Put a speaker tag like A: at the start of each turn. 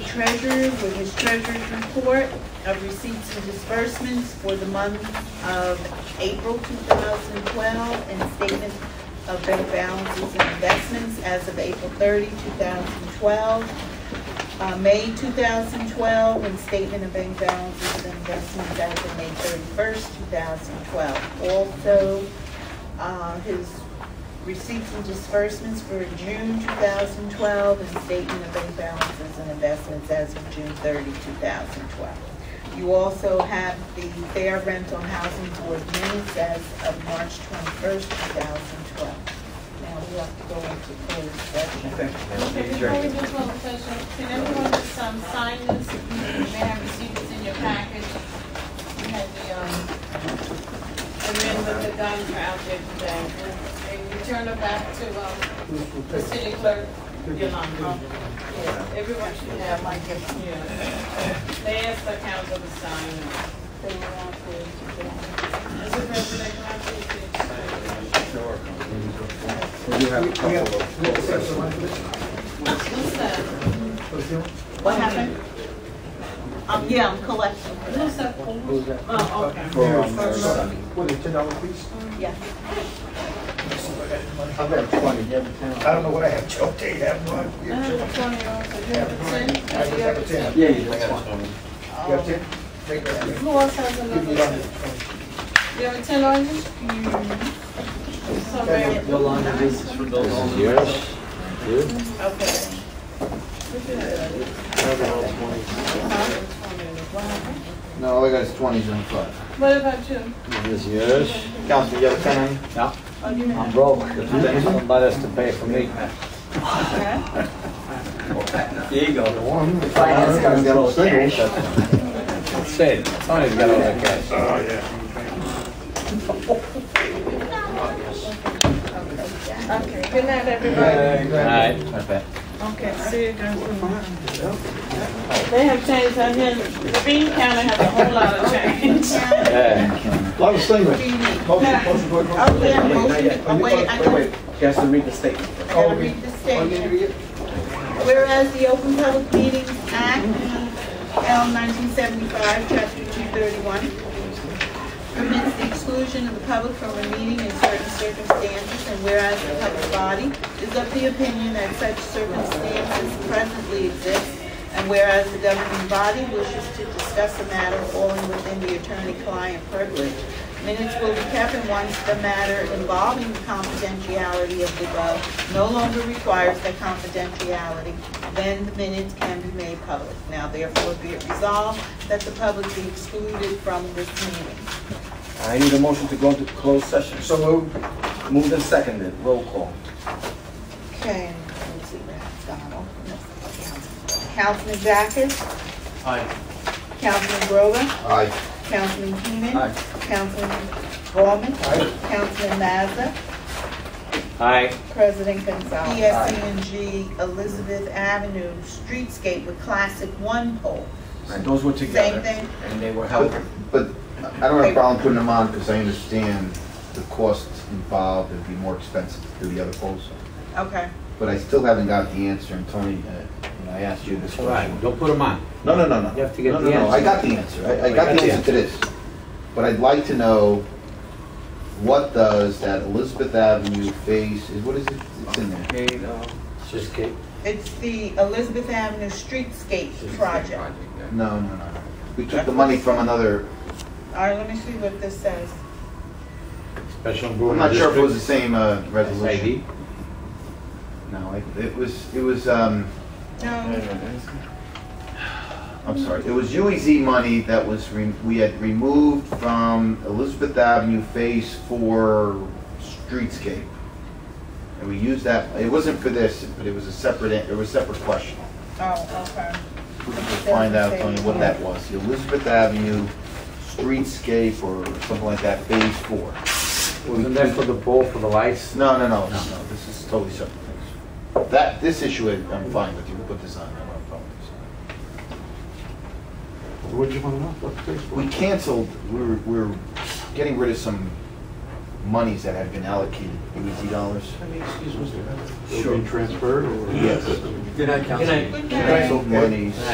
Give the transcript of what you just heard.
A: treasurer with his treasurer's report of receipts and disbursements for the month of April 2012 and statement of bank balances and investments as of April 30, 2012. Uh, May 2012, and statement of bank balances and investments as of May 31st, 2012. Also, uh, his receipts and disbursements for June 2012 and statement of bank balances and investments as of June 30, 2012. You also have the fair rental housing board minutes as of March 21st, 2012. Now we have to go into closed session.
B: Okay, before we move on to closed session, can everyone just um, sign this? You may have received this in your package. We had the, um, the men with the guns were out there today. And we turn it back to, um, the city clerk, Yolanda. Yes, everyone should have, like, if, yeah. They asked the council to sign. They were on for it. Mr. President, can I please take-
C: We have a couple of closed sessions.
B: What's that?
A: What happened? Um, yeah, I'm collecting for that.
B: Who's that? Oh, okay.
C: for, um, their son.
D: What, a ten dollar piece?
A: Yeah.
C: I've got twenty, you have ten.
D: I don't know what I have, Joe, do you have one?
B: I have a twenty also, do you have a ten?
D: I just have a ten.
C: Yeah, you have one.
D: You have ten? Take that.
B: Who else has
D: Give
B: another?
D: me
B: You
D: that.
B: have a ten on you? Sorry.
E: Yolanda, this is for those on the.
A: Okay.
C: No, all I got is twenties on five.
B: What about you?
F: Yes, yes.
C: Councilman, you have a ten on you?
B: Oh, you have.
F: I'm broke. Then Somebody has to pay for me.
E: There you go.
C: Finance guy's got a single.
F: Say, Tony's got all that cash.
B: Okay, good night, everybody.
F: All
C: Exactly.
F: right. Okay.
B: Okay, see you guys tomorrow. They have changed, I hear, the bean counter has a whole lot of change.
F: Yeah.
C: Lot of singles.
A: Do you need?
D: Motion, motion, go ahead.
A: Oh, yeah, motion, oh, wait, I gotta-
E: She has to read the statement.
A: I gotta read the statement. Whereas the Open Public Meetings Act, L 1975, Chapter 231, permits the exclusion of the public from a meeting in certain circumstances, and whereas the public body is of the opinion that such circumstances presently exist, and whereas the governing body wishes to discuss a matter falling within the attorney-client privilege, minutes will be kept, and once the matter involving the confidentiality of the above no longer requires that confidentiality, then the minutes can be made public. Now therefore be it resolved that the public be excluded from this meeting.
E: I need a motion to go into closed session.
D: So moved.
E: Moved and seconded, roll call.
A: Okay, let's see, that's Donald. No, Councilman- Councilman Jacobs? Aye. Councilman Grover?
C: Aye.
A: Councilman Keenan?
E: Aye.
A: Councilman Bowman? Councilman Mazza?
F: Hi.
A: President Gonzalez. ESCNG Elizabeth Avenue Streetscape with Classic One pole.
E: And those were together.
A: Same thing.
E: And they were held.
C: But, but I don't have a problem putting them on because I understand the costs involved. It'd be more expensive to do the other polls.
A: Okay.
C: But I still haven't got the answer. And Tony, uh, you know, I asked you this
F: All
C: question.
F: right. Don't put them on.
C: No, no, no, no.
F: You have to get
C: No,
F: the
C: no, no,
F: answer.
C: I got the answer. I, I got the answer to this. But I'd like to know what does that Elizabeth Avenue face, is, what is it, it's in there?
E: Okay, uh,
F: It's just kidding.
A: It's the Elizabeth Avenue Streetscape project.
C: No, no, no. no. We took the money from another,
A: All right, let me see what this says.
F: Special
C: I'm
F: improvement
C: not sure if it was the
F: district.
C: same, uh, resolution.
F: Maybe.
C: No, it- it was, it was, um,
A: No,
C: I'm sorry, it was UEZ money that was, re- we had removed from Elizabeth Avenue Phase Four streetscape. And we used that, it wasn't for this, but it was a separate, it was a separate question.
A: oh, okay.
C: We can Find out, Tony, what that was, the Elizabeth Avenue streetscape or something like that, Phase Four.
F: Wasn't that for the pole for the lights?
C: No, no, no, no, no, this is totally separate things. That, this issue, I'm fine with you, put this on, I don't have a problem with this.
D: What'd you want to know? What's this for?
C: We canceled, we were, we were getting rid of some monies that had been allocated, UEZ dollars.
D: Let me Excuse Mr. Evans.
E: Sure.
D: Will be transferred or?
C: Yes.
E: Good night, Councilman.
C: Canceled monies.